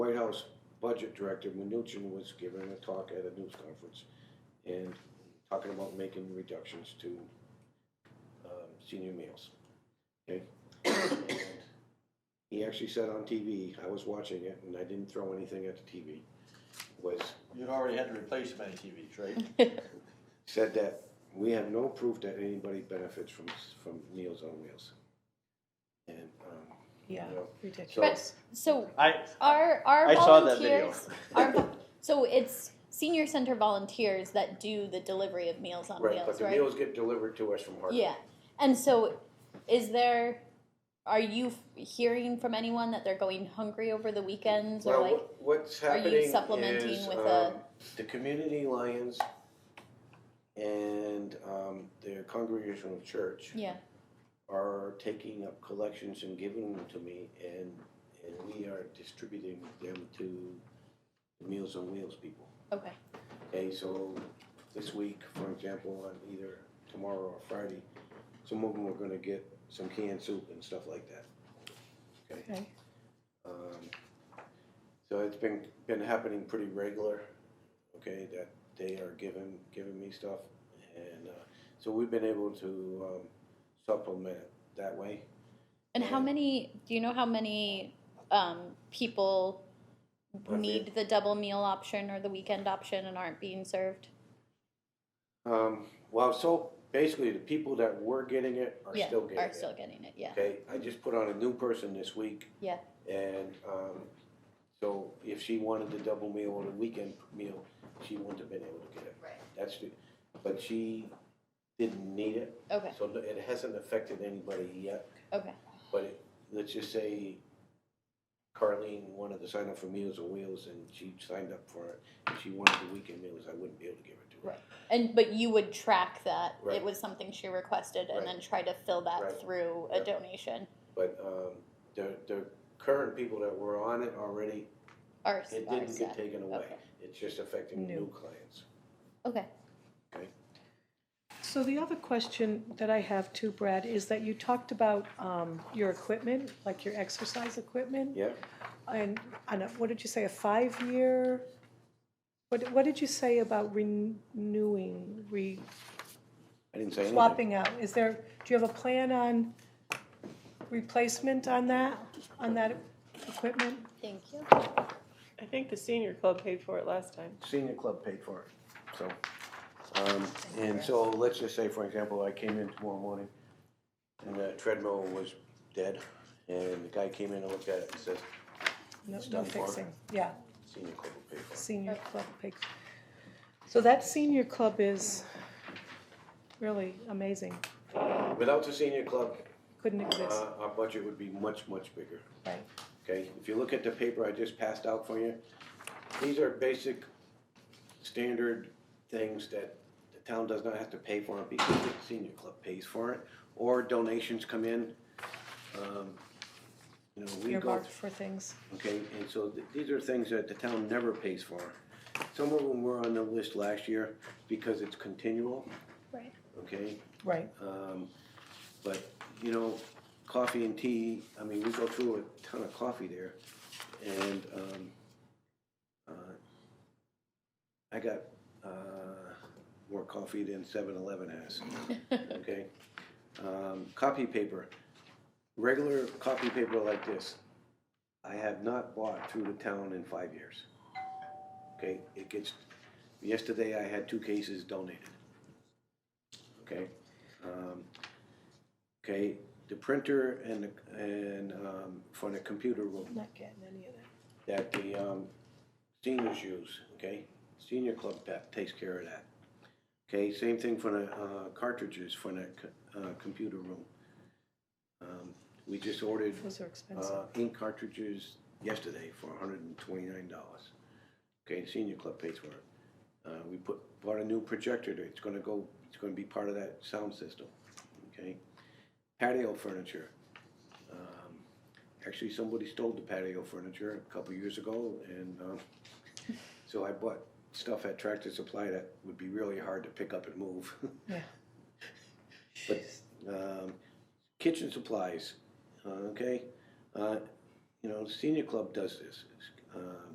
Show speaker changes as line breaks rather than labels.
budget director Mnuchin was giving a talk at a news conference and talking about making reductions to um, senior meals. Okay? And He actually said on TV, I was watching it and I didn't throw anything at the TV, was
You'd already had to replace many TVs, right?
said that we have no proof that anybody benefits from, from Meals on Wheels. And, um,
Yeah,
you know, so,
ridiculous.
So
I,
our our
I saw that video.
volunteers our vo- so it's senior center volunteers that do the delivery of meals on
right,
wheels,
but the
right?
meals get delivered to us from Hartford.
yeah. And so is there are you f- hearing from anyone that they're going hungry over the weekends or
Well,
like
what- what's
are you
happening
supplementing
is,
with
um,
a-
the community lions and um, their congregational church
yeah,
are taking up collections and giving them to me, and and we are distributing them to Meals on Wheels people.
okay.
Okay, so this week, for example, on either tomorrow or Friday, some of them are gonna get some canned soup and stuff like that.
Okay.
Um, So it's been, been happening pretty regular, okay, that they are giving, giving me stuff. And uh, so we've been able to um, supplement it that way.
And how
Yeah.
many do you know how many um, people
I
need the double meal option or the weekend option and aren't being served?
Um, Well, so basically, the people that were getting it are
yeah,
still getting
are
it.
still getting it. Yeah.
Okay, I just put on a new person this week.
Yeah.
And um, so if she wanted the double meal or the weekend meal, she wouldn't have been able to get it.
Right.
That's the, but she didn't need it.
Okay.
So it hasn't affected anybody yet,
Okay.
but it- let's just say Carleen wanted to sign up for Meals on Wheels and she signed up for it. If she wanted the weekend meals, I wouldn't be able to give it to her.
Right. And but you would track that
Right.
it was something she requested, and
Right.
then try to fill that
Right.
through
Yeah.
a donation.
But um, the, the current people that were on it already,
Or
it
or
didn't get
set.
taken away.
Okay.
It's just affecting
New.
new clients.
Okay.
So the other question that I have too, Brad, is that you talked about um, your equipment, like your exercise equipment,
Yeah,
and, and a- what did you say, a five-year? What, what did you say about renewing, re,
I didn't say anything.
swapping out? Is there, do you have a plan on replacement on that, on that equipment?
Thank you.
I think the senior club paid for it last time.
Senior club paid for it, so. Um, and so let's just say, for example, I came in tomorrow morning and the treadmill was dead and the guy came in and looked at it and says,
No,
It's
no
done for.
fixing, yeah.
senior club will pay for it.
Senior club picks. So that senior club is really amazing.
Without the senior club,
Couldn't
uh,
exist.
our budget would be much, much bigger.
Right.
Okay, if you look at the paper I just passed out for you, these are basic, standard things that the town does not have to pay for because the senior club pays for it, or donations come in. Um, You know, we go,
Earmarked for things.
okay, and so th- these are things that the town never pays for. Some of them were on the list last year because it's continual,
Right.
okay?
Right.
Um, but, you know, coffee and tea, I mean, we go through a ton of coffee there, and, um, uh, I got, uh, more coffee than seven eleven has, okay? Um, copy paper, regular copy paper like this, I have not bought through the town in five years. Okay, it gets, yesterday I had two cases donated. Okay, um, Okay, the printer and, the- and um, for the computer room
Not getting any of
that
that.
the um, seniors use, okay? Senior Club Pep takes care of that. Okay, same thing for the uh, cartridges for the co- uh, computer room. Um, We just ordered
Those are expensive.
uh, ink cartridges yesterday for hundred and twenty-nine dollars. Okay, senior club pays for it. Uh, we put, bought a new projector, it's gonna go, it's gonna be part of that sound system, okay? Patio furniture. Um, Actually, somebody stole the patio furniture a couple years ago, and, um, so I bought stuff at Tractor Supply that would be really hard to pick up and move.
Yeah.
But, um, kitchen supplies, uh, okay? Uh, you know, senior club does this. Um,